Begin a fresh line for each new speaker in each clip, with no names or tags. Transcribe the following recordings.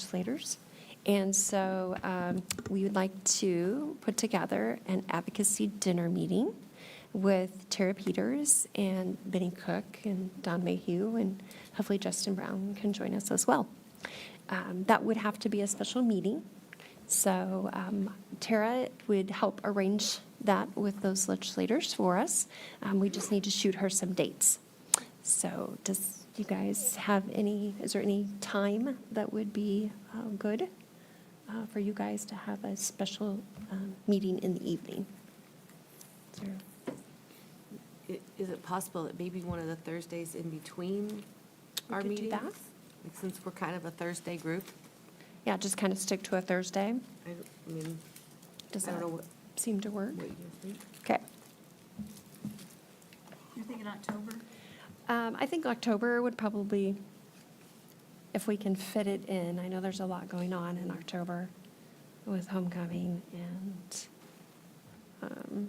legislators. And so um, we would like to put together an advocacy dinner meeting with Tara Peters and Benny Cook and Don Mayhew, and hopefully Justin Brown can join us as well. Um, That would have to be a special meeting, so um, Tara would help arrange that with those legislators for us. Um, We just need to shoot her some dates. So does you guys have any, is there any time that would be uh, good uh, for you guys to have a special um, meeting in the evening? Is there-
I- Is it possible that maybe one of the Thursdays in between
We
our
could do
meetings?
that.
Like, Since we're kind of a Thursday group,
Yeah, just kind of stick to a Thursday.
I don't- I mean,
Does
I don't
that
know what-
seem to work?
what you think?
Okay.
You're thinking October?
Um, I think October would probably, if we can fit it in, I know there's a lot going on in October with homecoming and, um,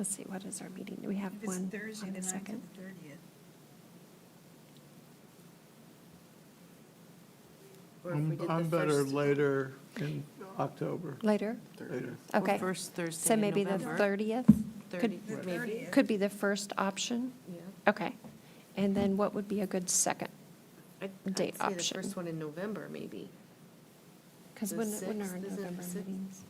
let's see, what is our meeting? Do we have
If
one
it's
on
Thursday, the
the
ninth
second?
and the thirtieth.
Or if we
I'm
did the
I'm better
first-
later in October,
Later?
later.
or
Okay.
First Thursday
So
in
maybe the
November.
30th? Could,
30th,
Right.
maybe.
could be the first option?
Yeah.
Okay. And then what would be a good second?
I'd- I'd
Date
say
option.
The first one in November, maybe,
Because
The
when, when are our
sixth, isn't it
November
the sixth?
meetings?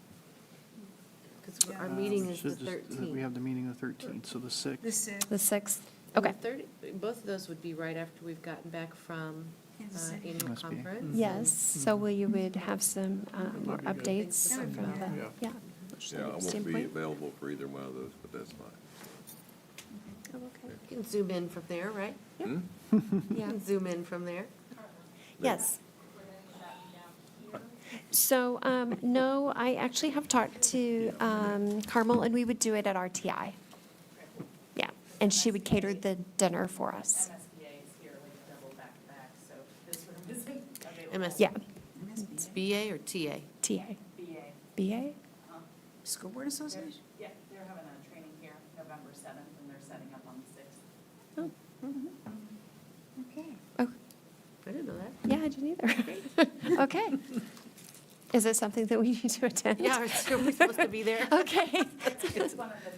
because our
Yeah.
meeting
Um,
is the
should just- We
13th.
have the meeting the 13th, so the 6th.
The sixth,
The 6th?
And the
Okay.
30 Both of those would be right after we've gotten back from uh,
Kansas City.
annual
Must be.
conference.
Yes, so we would have some um, more
That'd be good.
updates
That
would be
from
good.
the,
Yeah.
yeah.
Yeah, I won't be
standpoint.
available for either one of those, but that's fine.
Oh, okay.
You can zoom in from there, right?
Yeah.
Hmm?
You
Yeah.
can zoom in from there.
Yes. So, um, no, I actually have talked to um, Carmel, and we would do it at RTI. Yeah, and she would cater the dinner for us.
MSBA is here like double back to back, so this room isn't available.
MS.
Yeah,
It's BA or TA?
TA,
BA,
BA?
School Board Association?
yeah, they're having a training here November 7th, and they're setting up on the 6th.
Okay.
Oh,
I didn't know that.
yeah, I didn't either. Okay. Is it something that we need to attend?
Yeah, are we supposed to be there?
Okay.
It's one of the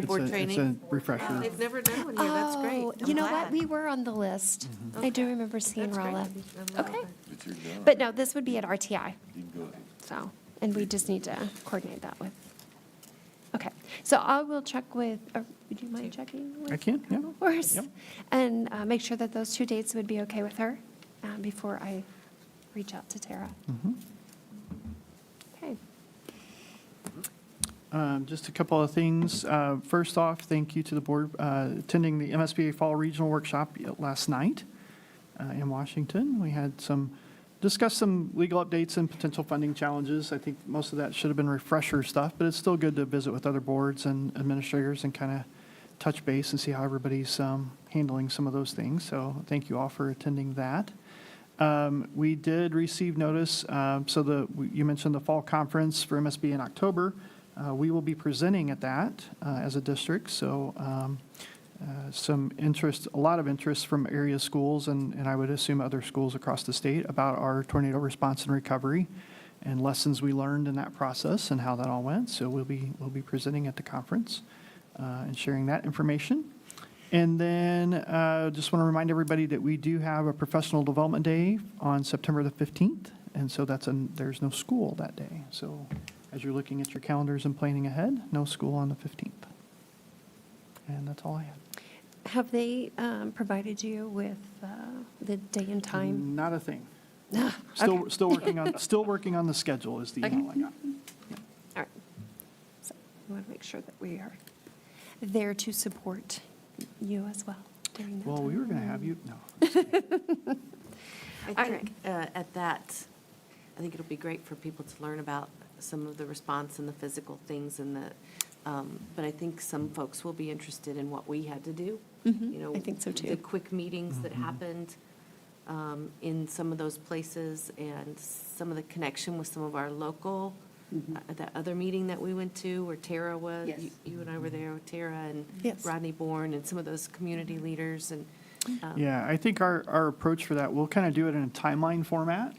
New
It's a-
board
It's
training?
a refresher.
They've never done one here, that's great.
Oh,
I'm
You know what?
glad.
We were on the list. I do remember seeing
That's great.
Rolla.
I'm glad.
Okay.
But you're done.
But no, this would be at RTI,
You can go.
so, and we just need to coordinate that with. Okay, so I will check with, uh, would you mind checking with?
I can, yeah.
Carmel for us?
Yep.
And uh, make sure that those two dates would be okay with her uh, before I reach out to Tara.
Mhm.
Okay.
Um, Just a couple of things. Uh, First off, thank you to the board uh, attending the MSBA Fall Regional Workshop last night uh, in Washington. We had some, discussed some legal updates and potential funding challenges. I think most of that should have been refresher stuff, but it's still good to visit with other boards and administrators and kind of touch base and see how everybody's um, handling some of those things. So thank you all for attending that. Um, We did receive notice, um, so the, you mentioned the fall conference for MSB in October. Uh, We will be presenting at that uh, as a district, so um, uh, some interest, a lot of interest from area schools and, and I would assume other schools across the state about our tornado response and recovery and lessons we learned in that process and how that all went. So we'll be, we'll be presenting at the conference uh, and sharing that information. And then uh, just want to remind everybody that we do have a professional development day on September the 15th. And so that's, an- there's no school that day. So as you're looking at your calendars and planning ahead, no school on the 15th. And that's all I have.
Have they um, provided you with uh, the day and time?
Not a thing. Mm, Still, still working on, still working on the schedule is the
Okay.
email I got.
All right. So we want to make sure that we are there to support you as well during that time.
Well, we were going to have you, no.
I
All
think uh, at that, I think it'll be great for people to learn about some of the response and the physical things and the, um, but I think some folks will be interested in what we had to do.
Mhm.
You know,
I think so, too.
The quick meetings that happened um, in some of those places and some of the connection with some of our local,
Mm-hmm.
uh, that other meeting that we went to where Tara was.
Yes.
you- You and I were there, with Tara and
Yes. Mm-hmm.
Rodney Bourne and um, some of those community leaders and
Yeah, I think our, our approach for that, we'll kind of do it in a timeline format.